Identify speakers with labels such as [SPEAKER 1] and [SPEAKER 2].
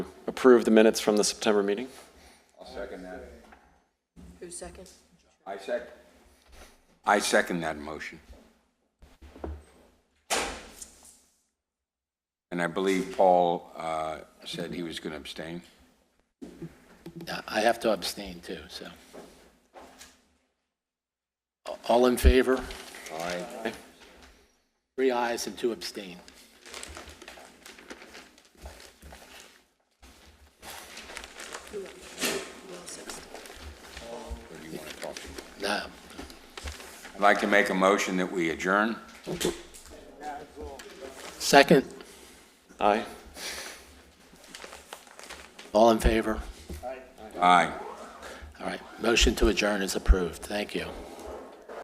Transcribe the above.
[SPEAKER 1] approve the minutes from the September meeting.
[SPEAKER 2] I'll second that.
[SPEAKER 3] Who's second?
[SPEAKER 2] I sec, I second that motion. And I believe Paul uh, said he was going to abstain.
[SPEAKER 4] Yeah, I have to abstain too, so. All in favor?
[SPEAKER 2] Aye.
[SPEAKER 4] Three ayes and two abstain.
[SPEAKER 2] What do you want to talk to?
[SPEAKER 4] No,
[SPEAKER 2] I'd like to make a motion that we adjourn.
[SPEAKER 4] second,
[SPEAKER 1] Aye.
[SPEAKER 4] all in favor?
[SPEAKER 2] Aye.
[SPEAKER 4] All right, motion to adjourn is approved, thank you.